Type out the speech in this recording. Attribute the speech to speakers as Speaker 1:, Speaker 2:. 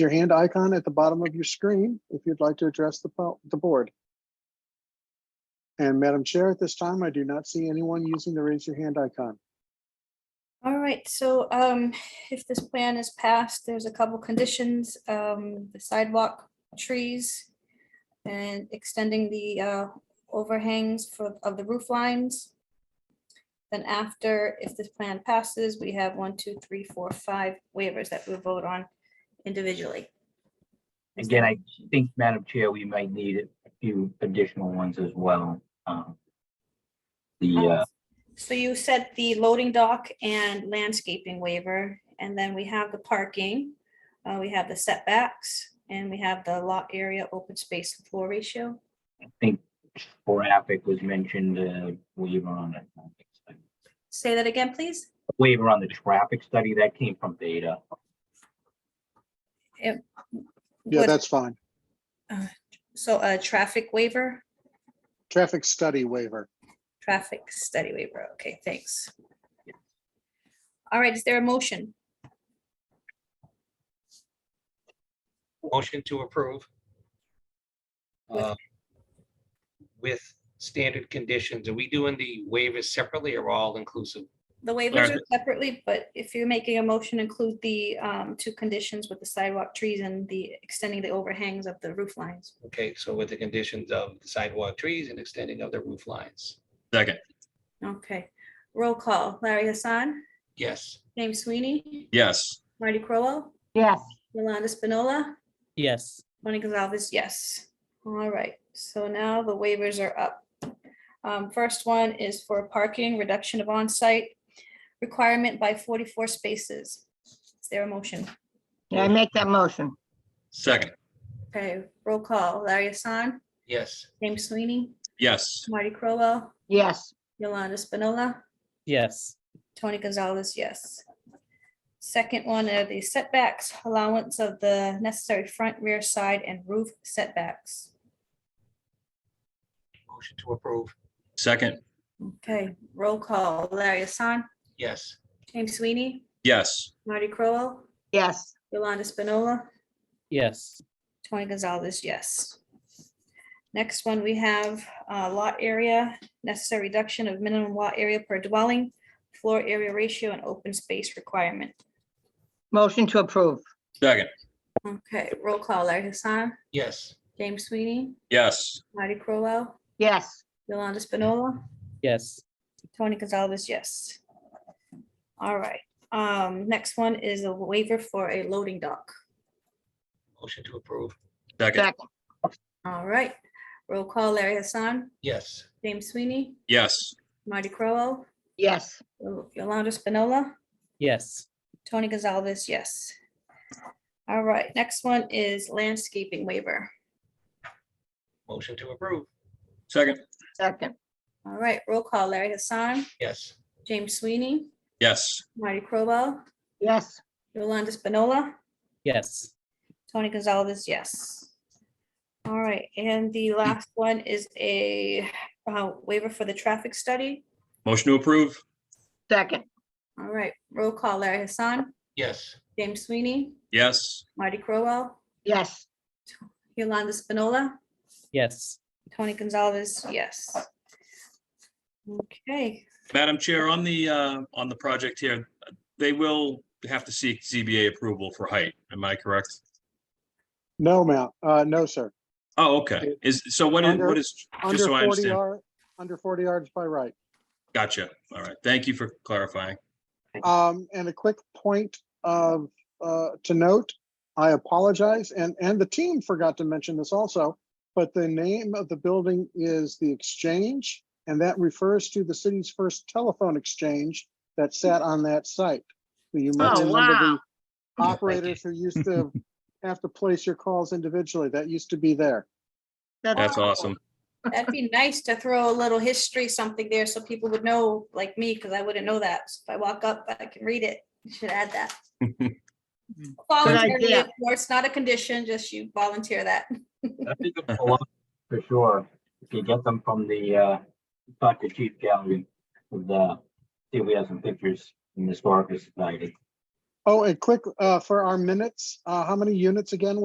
Speaker 1: your hand icon at the bottom of your screen if you'd like to address the, po- the board. And Madam Chair, at this time, I do not see anyone using the raise your hand icon.
Speaker 2: All right, so um, if this plan is passed, there's a couple conditions, um, the sidewalk, trees, and extending the uh, overhangs for, of the roof lines. Then after, if this plan passes, we have one, two, three, four, five waivers that we'll vote on individually.
Speaker 3: Again, I think, Madam Chair, we might need a few additional ones as well. Um, The, uh,
Speaker 2: So you said the loading dock and landscaping waiver, and then we have the parking. uh, we have the setbacks and we have the lot area, open space and floor ratio.
Speaker 3: I think traffic was mentioned, uh, waiver on the traffic study.
Speaker 2: Say that again, please.
Speaker 3: Waiver on the traffic study, that came from Beta.
Speaker 1: Yeah,
Speaker 2: What-
Speaker 1: that's fine.
Speaker 2: So a traffic waiver,
Speaker 1: Traffic study waiver.
Speaker 2: traffic study waiver. Okay, thanks. All right, is there a motion?
Speaker 4: Motion to approve.
Speaker 2: With-
Speaker 4: uh, With standard conditions. Are we doing the waivers separately or all inclusive?
Speaker 2: The waivers
Speaker 4: Sure.
Speaker 2: are separately, but if you're making a motion, include the um, two conditions with the sidewalk trees and the extending the overhangs of the roof lines.
Speaker 4: Okay, so with the conditions of sidewalk trees and extending of the roof lines.
Speaker 5: Second,
Speaker 2: Okay, roll call. Larry Hassan,
Speaker 4: Yes,
Speaker 2: James Sweeney,
Speaker 5: yes.
Speaker 2: Marty Crowell,
Speaker 6: yes,
Speaker 2: Yolanda Spinola,
Speaker 7: yes,
Speaker 2: Tony Gonzalez, yes. All right, so now the waivers are up. Um, First one is for parking, reduction of on-site requirement by 44 spaces. Is there a motion?
Speaker 6: I make that motion,
Speaker 5: Second,
Speaker 2: Okay, roll call. Larry Hassan,
Speaker 4: yes,
Speaker 2: James Sweeney,
Speaker 5: yes.
Speaker 2: Marty Crowell,
Speaker 6: yes,
Speaker 2: Yolanda Spinola,
Speaker 7: yes,
Speaker 2: Tony Gonzalez, yes. Second one are the setbacks, allowance of the necessary front, rear, side, and roof setbacks.
Speaker 4: motion to approve.
Speaker 5: Second,
Speaker 2: Okay, roll call, Larry Hassan,
Speaker 4: Yes,
Speaker 2: James Sweeney,
Speaker 5: yes.
Speaker 2: Marty Crowell,
Speaker 6: yes,
Speaker 2: Yolanda Spinola,
Speaker 7: yes,
Speaker 2: Tony Gonzalez, yes. Next one, we have uh, lot area, necessary reduction of minimum lot area per dwelling, floor area ratio, and open space requirement.
Speaker 6: motion to approve,
Speaker 5: Second,
Speaker 2: Okay, roll call, Larry Hassan,
Speaker 4: yes,
Speaker 2: James Sweeney,
Speaker 5: yes.
Speaker 2: Marty Crowell,
Speaker 6: yes,
Speaker 2: Yolanda Spinola,
Speaker 7: yes,
Speaker 2: Tony Gonzalez, yes. All right, um, next one is a waiver for a loading dock.
Speaker 4: motion to approve.
Speaker 5: Second,
Speaker 6: second,
Speaker 2: All right, roll call Larry Hassan,
Speaker 4: Yes,
Speaker 2: James Sweeney,
Speaker 5: yes.
Speaker 2: Marty Crowell,
Speaker 6: yes,
Speaker 2: Yolanda Spinola,
Speaker 7: yes,
Speaker 2: Tony Gonzalez, yes. All right, next one is landscaping waiver.
Speaker 4: motion to approve.
Speaker 5: Second,
Speaker 6: second,
Speaker 2: All right, roll call Larry Hassan,
Speaker 4: Yes,
Speaker 2: James Sweeney,
Speaker 5: yes.
Speaker 2: Marty Crowell,
Speaker 6: yes,
Speaker 2: Yolanda Spinola,
Speaker 7: yes,
Speaker 2: Tony Gonzalez, yes. All right, and the last one is a uh, waiver for the traffic study.
Speaker 5: Motion to approve?
Speaker 6: second,
Speaker 2: All right, roll call Larry Hassan,
Speaker 4: yes,
Speaker 2: James Sweeney,
Speaker 5: Yes.
Speaker 2: Marty Crowell,
Speaker 6: yes,
Speaker 2: Yolanda Spinola,
Speaker 7: yes.
Speaker 2: Tony Gonzalez, yes. Okay,
Speaker 5: Madam Chair, on the, uh, on the project here, they will have to seek ZBA approval for height. Am I correct?
Speaker 1: No, Mount, uh, no, sir.
Speaker 5: Oh, okay. Is, so what is, what is,
Speaker 1: Under
Speaker 5: just so I
Speaker 1: forty
Speaker 5: understand.
Speaker 1: yard, under forty yards by right.
Speaker 5: Gotcha. All right. Thank you for clarifying.
Speaker 1: Um, and a quick point of, uh, to note, I apologize, and, and the team forgot to mention this also, but the name of the building is The Exchange, and that refers to the city's first telephone exchange that sat on that site. You might
Speaker 6: Oh,
Speaker 1: remember the
Speaker 6: wow.
Speaker 1: operators who used to have to place your calls individually. That used to be there.
Speaker 5: That's awesome.
Speaker 2: that'd be nice to throw a little history, something there, so people would know, like me, because I wouldn't know that. So If I walk up, I can read it. You Should add that. Voluntarily,
Speaker 6: idea.
Speaker 2: of course, not a condition, just you volunteer that.
Speaker 3: I think it's a lot, For sure, if you get them from the, uh, talk to Chief Gallery, with, uh, see if we have some pictures from the Historical Society.
Speaker 1: Oh, and quick, uh, for our minutes, uh, how many units again